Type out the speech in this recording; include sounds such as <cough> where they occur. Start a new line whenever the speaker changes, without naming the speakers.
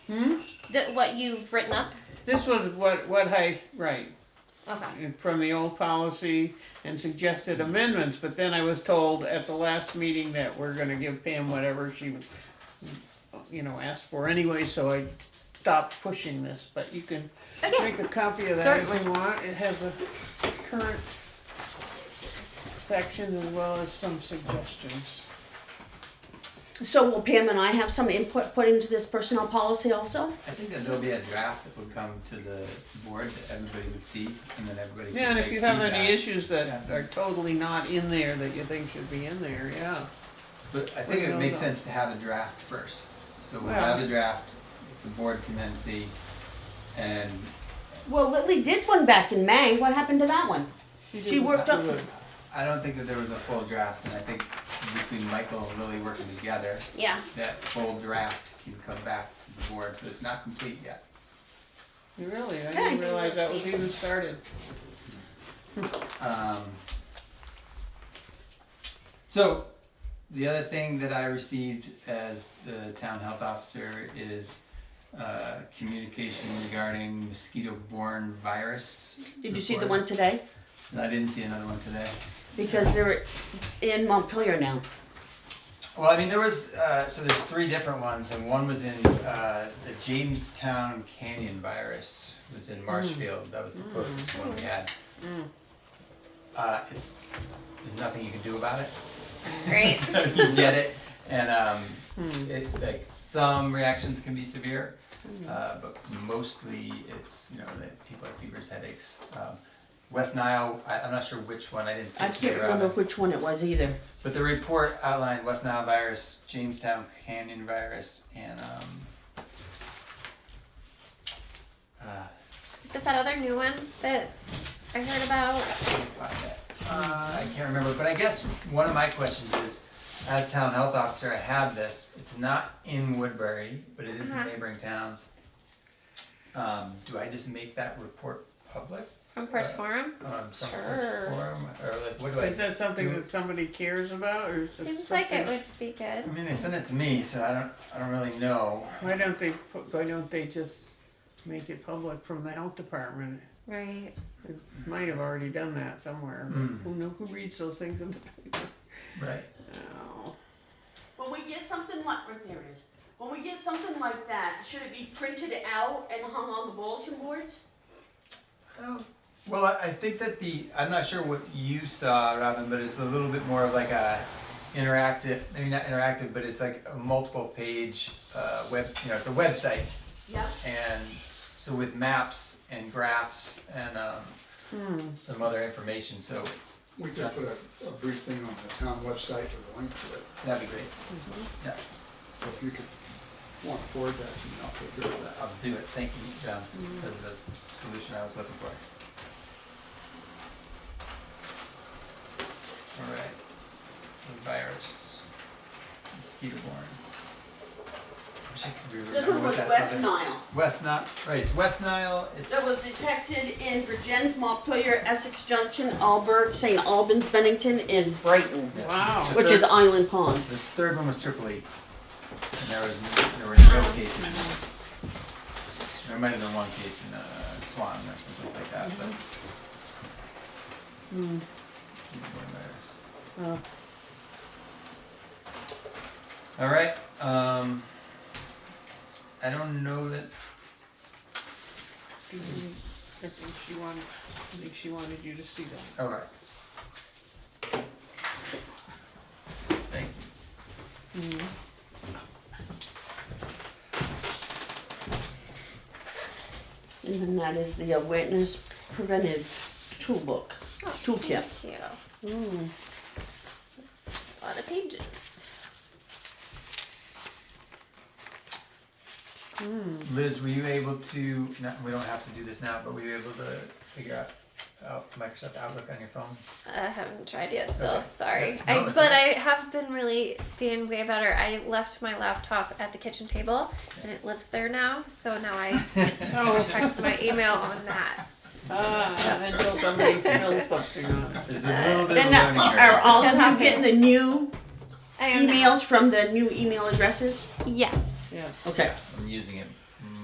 That what you've written up?
This was what, what I, right,
Okay.
from the old policy and suggested amendments, but then I was told at the last meeting that we're gonna give Pam whatever she, you know, asked for anyway, so I stopped pushing this, but you can
Okay.
make a copy of that if
Certainly.
you want. It has a current section as well as some suggestions.
So will Pam and I have some input put into this personnel policy also?
I think that there'll be a draft that would come to the board that everybody would see, and then everybody.
Yeah,
can
and if
make
you have any
feedback.
issues that are totally not in there that you think should be in there, yeah.
But I think
we
it
don't
makes
know.
sense to have a draft first, so we'll
Well-
have the draft, the board can then see, and
Well, Lily did one back in May. What happened to that one? She
didn't
worked
do
up-
it.
I don't think that there was a full draft, and I think between Michael and Lily working together,
Yeah.
that full draft can come back to the board, so it's not complete yet.
Really, I
Yeah.
didn't realize that was even started.
Um, so, the other thing that I received as the town health officer is uh, communication regarding mosquito-borne virus.
Did you see the
report.
one today?
And I didn't see another one today.
Because they're in Montpelier now.
Well, I mean, there was uh, so there's three different ones, and one was in uh, the Jamestown Canyon virus was in Marshfield. That was the closest one we had. Uh, it's there's nothing you can do about it.
Great.
So <laughs> you get it, and um,
Hmm.
it, like some reactions can be severe, uh, but mostly it's you know that people have fevers, headaches. Um, West Nile, I, I'm not sure which one. I didn't see.
I
it
can't
today,
remember
Robin.
which one it was either.
But the report outlined West Nile virus, Jamestown Canyon virus, and um, uh,
Is it that other new one that I heard about?
uh, I can't remember. But I guess one of my questions is, as town health officer, I have this. It's not in Woodbury, but it is
Uh-huh.
in neighboring towns. Um, do I just make that report public
From First Forum?
on some
Sure.
form, or like what do I?
Is that something
Mm.
that somebody cares about, or is it
Seems like it
something-
would be good.
I mean, they sent it to me, so I don't. I don't really know.
Why don't they, pu- why don't they just make it public from the health department?
Right.
Might have already done that somewhere,
Mm.
who know, who reads those things in the paper? <laughs>
Right.
Oh.
When we get something like, right there it is. When we get something like that, should it be printed out and hung on the bulletin boards?
Oh, Well, I I think that the, I'm not sure what you saw, Robin, but it's a little bit more of like a interactive, maybe not interactive, but it's like a multiple page uh, web, you know, it's a website.
Yep.
And so with maps and graphs and um, some other information, so
We could put a, a brief thing on the town website with a link to it,
that'd be great. Yeah,
so if you could, want to forward that, you know, take care of that.
I'll do it. Thank you, John.
Mm-hmm.
That's the solution I was looking for. All right, the virus, mosquito borne. Wish I could remember
This one
what
was
that
West
other-
Nile.
West Nile, right, it's West Nile, it's.
That was detected in Virgins, Montpelier, Essex Junction, Alberg, St. Albans, Bennington, and Brighton,
yeah.
Wow.
The
which is
third-
Island Pond.
The third one was Triple E. And there was, n- there were no cases. There might have been one case in uh, Swan or someplace like that, but. Mosquito borne virus.
Uh,
All right. Um, I don't know that.
I think she wanted, I think she wanted you to see that.
All right. Thank you.
And then that is the awareness preventive toolbook, toolkit.
Thank you. That's a lot of pages.
Liz, were you able to? Not, we don't have to do this now, but were you able to figure out out oh, Microsoft Outlook on your phone?
I haven't tried yet still.
Okay.
Sorry.
Yeah, no,
I,
it's
but
all
I have been really being way better. I left my laptop at the kitchen table and it lives there now. So now I <laughs>
Oh,
check my email on that. Uh,
ah, until somebody <laughs> spills something on it.
There's a little
And
bit of a learning
now, are
curve.
all of
Yeah.
you getting the new
I am now-
emails from the new email addresses?
Yes.
yeah.
Okay.
I'm using it